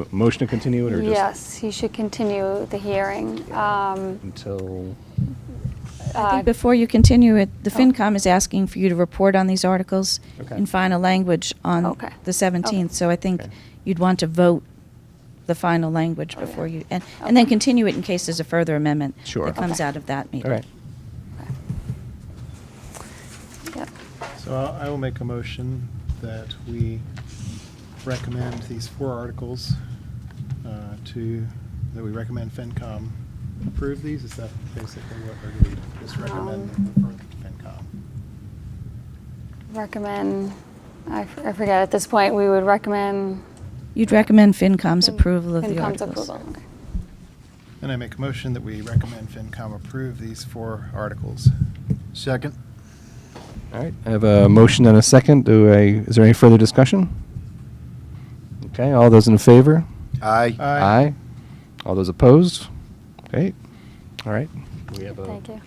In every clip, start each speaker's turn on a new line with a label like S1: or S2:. S1: M- Motion to continue it or just?
S2: Yes, he should continue the hearing. Um,
S1: Until,
S3: I
S2: uh,
S3: think before you continue it, the
S2: Oh.
S3: FinCom is asking for you to report on these articles
S1: Okay.
S3: in final language on
S2: Okay.
S3: the 17th. So I think
S1: Okay.
S3: you'd want to vote the final language
S2: Oh, yeah.
S3: before you, and, and then
S2: Okay.
S3: continue it in case there's a further amendment
S1: Sure.
S3: that comes
S2: Okay.
S3: out of that
S1: all
S3: meeting.
S1: right.
S2: yep.
S4: So I- I will make a motion that we recommend these four articles uh, to, that we recommend FinCom approve these. Is that basically what, or do we just recommend them for FinCom?
S2: Recommend, I f- I forget, at this point, we would recommend.
S3: You'd recommend FinCom's
S2: Fin-
S3: approval of the
S2: FinCom's
S3: articles.
S2: approval, okay.
S4: And I make a motion that we recommend FinCom approve these four articles. Second.
S1: All right, I have a motion and a second. Do I, is there any further discussion? Okay, all those in favor?
S5: Aye.
S1: Aye. All those opposed? Okay, all right. We have a
S2: Thank you.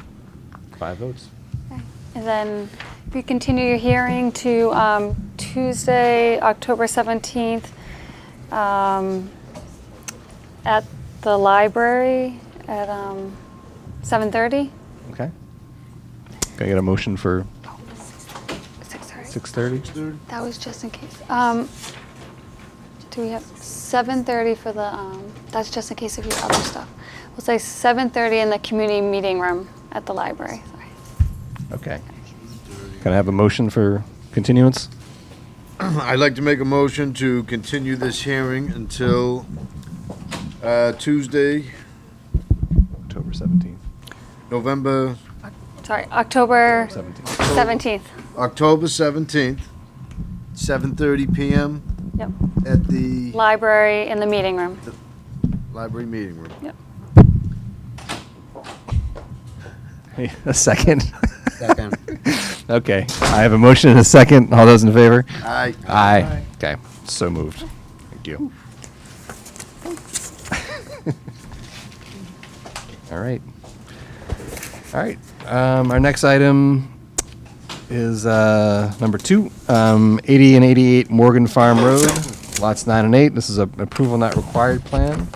S1: five votes.
S2: Okay. And then if you continue your hearing to um, Tuesday, October 17th, um, at the library at um, 7:30?
S1: Okay. Can I get a motion for
S2: Oh, six thirty.
S1: 6:30?
S2: That was just in case. Um, do we have 7:30 for the? Um, that's just in case of your other stuff. We'll say 7:30 in the community meeting room at the library. Sorry.
S1: Okay. Can I have a motion for continuance?
S5: I'd like to make a motion to continue this hearing until uh, Tuesday,
S1: October 17th.
S5: November,
S2: Sorry, October
S1: 17th.
S2: 17th.
S5: October 17th, 7:30 PM
S2: Yep.
S5: at the
S2: Library in the meeting room.
S5: library meeting room.
S2: Yep.
S1: A second?
S5: Second.
S1: Okay, I have a motion and a second. All those in favor?
S5: Aye.
S1: Aye.
S4: Aye.
S1: Okay, so moved. Thank you. All right. All right, um, our next item is, uh, number two, um, eighty and eighty-eight Morgan Farm Road, lots nine and eight. This is a approval not required plan.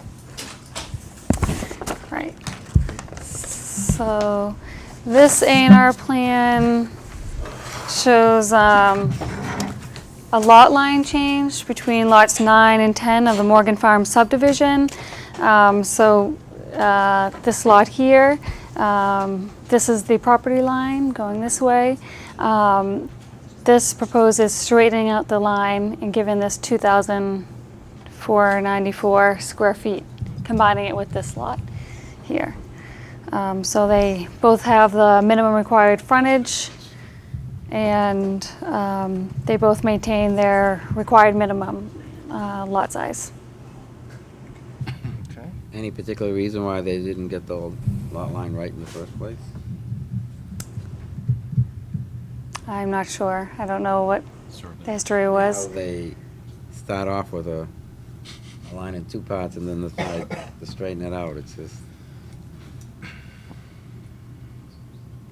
S2: Right. So this A&R plan shows um, a lot line change between lots 9 and 10 of the Morgan Farm subdivision. Um, So uh, this lot here, um, this is the property line going this way. Um, This proposes straightening out the line and giving this 2,494 square feet, combining it with this lot here. Um, So they both have the minimum required frontage, and um, they both maintain their required minimum uh, lot size.
S1: Okay.
S6: Any particular reason why they didn't get the lot line right in the first place?
S2: I'm not sure, I don't know what the history
S6: How
S2: was.
S6: They start off with a, a line in two parts and then decide to straighten it out, it's just.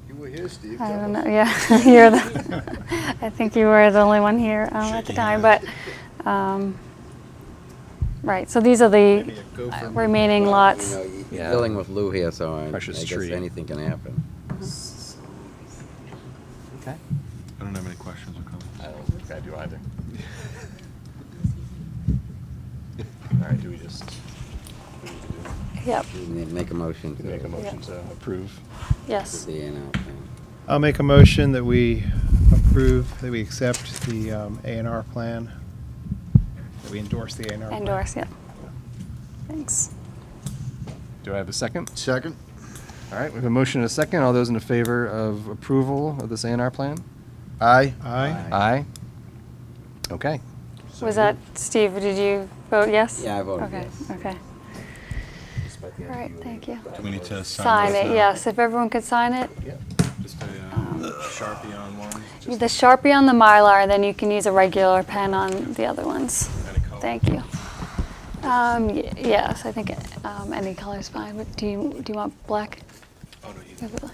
S5: You were here, Steve.
S2: I
S5: tell
S2: don't
S5: us.
S2: know, yeah, you're the, I think you were the only one here um, at the time, but, um, right, so these are the
S4: Maybe a gopher.
S2: remaining
S6: Well,
S2: lots.
S6: You know, you-
S1: Yeah.
S6: you're dealing with Lou here, so I I
S1: Precious
S6: guess
S1: tree.
S6: anything can happen.
S1: Okay.
S7: I don't have any questions or comments.
S1: I don't think I do either. All right, do we just do we
S2: Yep,
S6: You need to Make a motion to.
S1: do- make a motion to approve?
S2: yes.
S6: The A and R plan.
S4: I'll make a motion that we approve, that we accept the um, A&R plan, that we endorse the A&R plan.
S2: Endorse, yep. Thanks.
S1: Do I have a second?
S5: Second?
S1: All right, we have a motion and a second. All those in favor of approval of this A and R plan?
S5: Aye.
S4: Aye.
S1: Aye. Okay.
S2: Was that, Steve, did you vote yes?
S6: Yeah, I voted
S2: Okay,
S6: yes.
S2: Okay, all right, thank you.
S7: Do we need to sign
S2: Sign
S7: this
S2: it,
S7: now?
S2: yes, if everyone could sign it.
S7: Just a um, Sharpie on one,
S2: The
S7: just
S2: Sharpie on the Mylar, then you can use a regular pen on the other ones.
S7: any color.
S2: Thank you. Um, y- yes, I think um, any color's fine, but do you, do you want black?
S7: Oh, no, you-
S2: Maybe black.